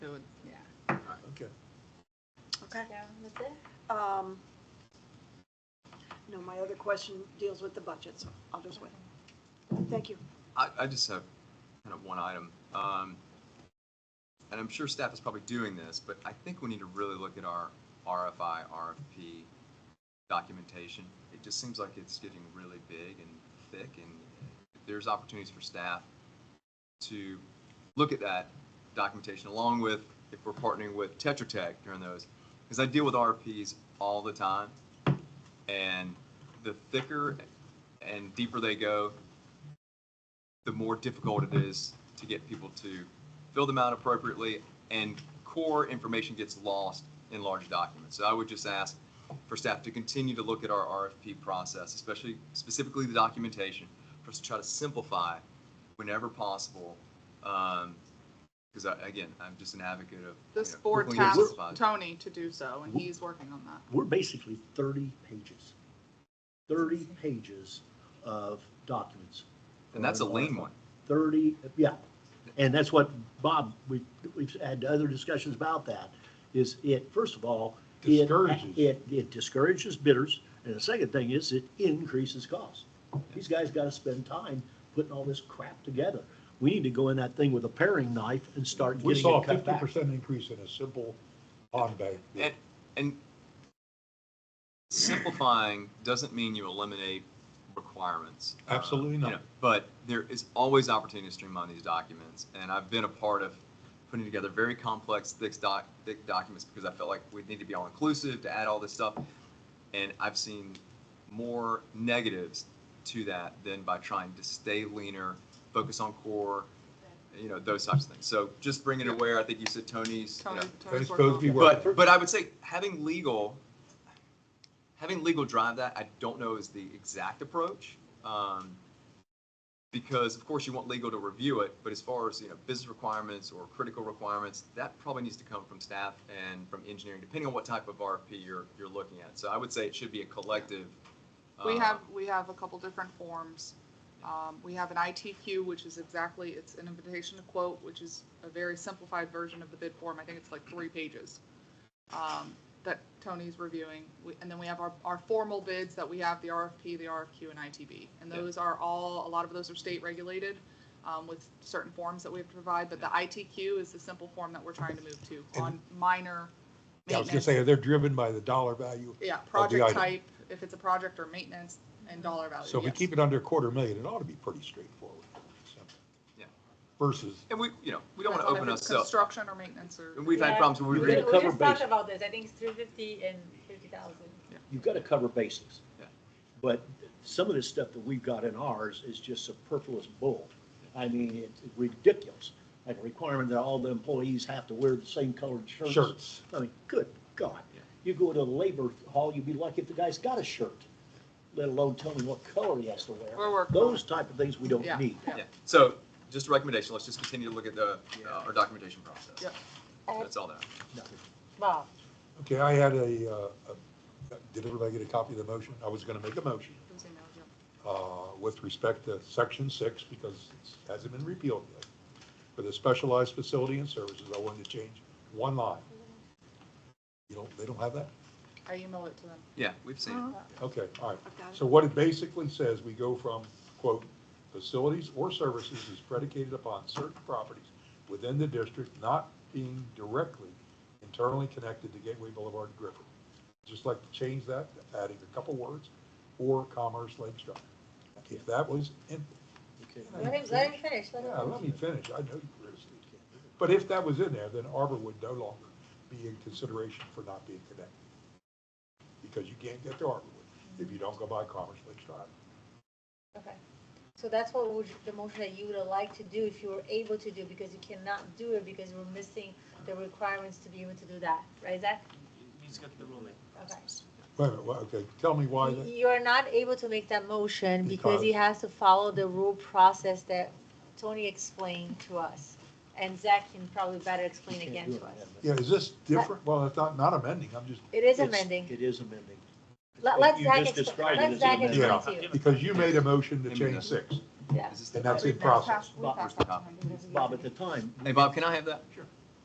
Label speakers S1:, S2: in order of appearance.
S1: Okay.
S2: So that's it.
S1: Um, No, my other question deals with the budget, so I'll just wait. Thank you.
S3: I, I just have kind of one item. Um, and I'm sure staff is probably doing this, but I think we need to really look at our RFI, RFP documentation. It just seems like it's getting really big and thick, and if there's opportunities for staff to look at that documentation along with if we're partnering with Tetra Tech during those. Because I deal with RFPs all the time, and the thicker and deeper they go, the more difficult it is to get people to fill them out appropriately, and core information gets lost in large documents. So I would just ask for staff to continue to look at our RFP process, especially specifically the documentation, for us to try to simplify whenever possible. Because I again, I'm just an advocate of. you
S4: This
S3: know,
S4: board
S3: quickly and
S4: tasked
S3: simplify.
S4: Tony to do so, and he's working on that.
S5: we're basically 30 pages, 30 pages of documents.
S3: And that's a lean one.
S5: 30, yeah. And that's what, Bob, we, we've had other discussions about that, is it, first of all, it-
S6: Discourages.
S5: It, it discourages bidders, and the second thing is it increases cost. These guys got to spend time putting all this crap together. We need to go in that thing with a paring knife and start
S6: We
S5: getting
S6: saw
S5: it
S6: a
S5: cut
S6: fifty
S5: back.
S6: percent increase in a simple bond bank.
S3: And, and simplifying doesn't mean you eliminate requirements. Uh,
S6: Absolutely
S3: you
S6: not.
S3: know, But there is always opportunity to streamline these documents, and I've been a part of putting together very complex, thick doc, thick documents because I felt like we need to be all inclusive to add all this stuff. And I've seen more negatives to that than by trying to stay leaner, focus on core, you know, those types of things. So just bringing it aware, I think you said Tony's, you
S4: Tony,
S3: know,
S4: Tony's
S6: It's
S4: working
S6: supposed to be
S4: on it.
S6: working.
S3: but, but I would say having legal, having legal drive that, I don't know is the exact approach. Um, because of course you want legal to review it, but as far as, you know, business requirements or critical requirements, that probably needs to come from staff and from engineering, depending on what type of RFP you're, you're looking at. So I would say it should be a collective.
S4: We
S3: um,
S4: have, we have a couple different forms. Um, we have an ITQ, which is exactly, it's an invitation to quote, which is a very simplified version of the bid form. I think it's like three pages. Um, that Tony's reviewing. We- And then we have our, our formal bids that we have, the RFP, the RFQ and ITB. And
S3: Yeah.
S4: those are all, a lot of those are state regulated, um, with certain forms that we have to provide. But the ITQ is the simple form that we're trying to move to
S6: And-
S4: on minor
S6: I was gonna
S4: maintenance.
S6: say, they're driven by the dollar value.
S4: Yeah,
S6: item.
S4: project type, if it's a project or maintenance and dollar value.
S6: So if we
S4: yes.
S6: keep it under a quarter million, it ought to be pretty straightforward. Simple.
S3: Yeah.
S6: Versus,
S3: And we, you know, we don't want to
S4: Depends on
S3: open
S4: if it's
S3: ourselves,
S4: Construction or maintenance or.
S3: and we've had
S2: Yeah.
S3: problems where we
S5: You're
S3: read
S5: gonna
S2: We
S5: cover
S2: just talked
S5: basic.
S2: about this, I think it's three fifty and fifty thousand.
S5: You've got to cover basics.
S3: Yeah.
S5: But some of this stuff that we've got in ours is just superfluous bull. I mean, it's ridiculous. Like a requirement that all the employees have to wear the same colored shirts.
S6: Shirts.
S5: I mean, good God.
S3: Yeah.
S5: You go to the labor hall, you'd be lucky if the guy's got a shirt, let alone tell me what color he has to wear.
S4: We're working on
S5: Those type of things we don't
S4: Yeah.
S5: need.
S3: Yeah, so just a recommendation, let's just continue to look at the, uh, our documentation process.
S4: Yep.
S3: That's all that.
S5: Nothing.
S2: Bob,
S6: okay, I had a, uh, a- did everybody get a copy of the motion? I was gonna make a motion,
S4: Those emails, yeah.
S6: uh, with respect to section six, because it hasn't been repealed yet. For the specialized facility and services, I wanted to change one line. You don't, they don't have that?
S4: I emailed it to them.
S3: Yeah, we've seen
S4: Uh-huh.
S3: it.
S6: Okay, all right.
S1: I've got it.
S6: So what it basically says, we go from, quote, facilities or services is predicated upon certain properties within the district not being directly internally connected to Gateway Boulevard Griffin. Just like to change that, adding a couple words, or Commerce Lake Drive. If that was, in-
S5: Okay.
S2: let him, let him finish, let him.
S6: yeah, let me finish, I know you criticized. But if that was in there, then Arbor would no longer be in consideration for not being connected. Because you can't get to Arborwood if you don't go by Commerce Lake Drive.
S2: Okay, so that's what would, the motion that you would like to do if you were able to do, because you cannot do it because we're missing the requirements to be able to do that, right, Zach?
S7: He's got the ruling.
S2: Okay.
S6: Wait, a minute, wha- okay, tell me why, that-
S2: You're not able to make that motion because he
S6: Because-
S2: has to follow the rule process that Tony explained to us. And Zach can probably better explain
S5: Can't
S2: again
S5: do
S2: to
S5: it,
S2: us.
S6: yeah, is this different? Well, it's not, not amending, I'm just,
S2: It is
S5: It's-
S2: amending.
S5: It is amending.
S2: Let,
S5: You
S2: let
S5: just
S2: Zach explain,
S5: described it
S2: let
S5: as
S2: Zach
S5: amending.
S2: explain
S6: Yeah.
S2: to you,
S6: because you made a motion to change six,
S2: yeah.
S3: Is this the-
S6: and that's in
S4: We've now
S6: process.
S4: passed- we passed
S3: Bob-
S4: that to them.
S5: Bob, at the time,
S3: Hey, Bob, can I have that? Sure.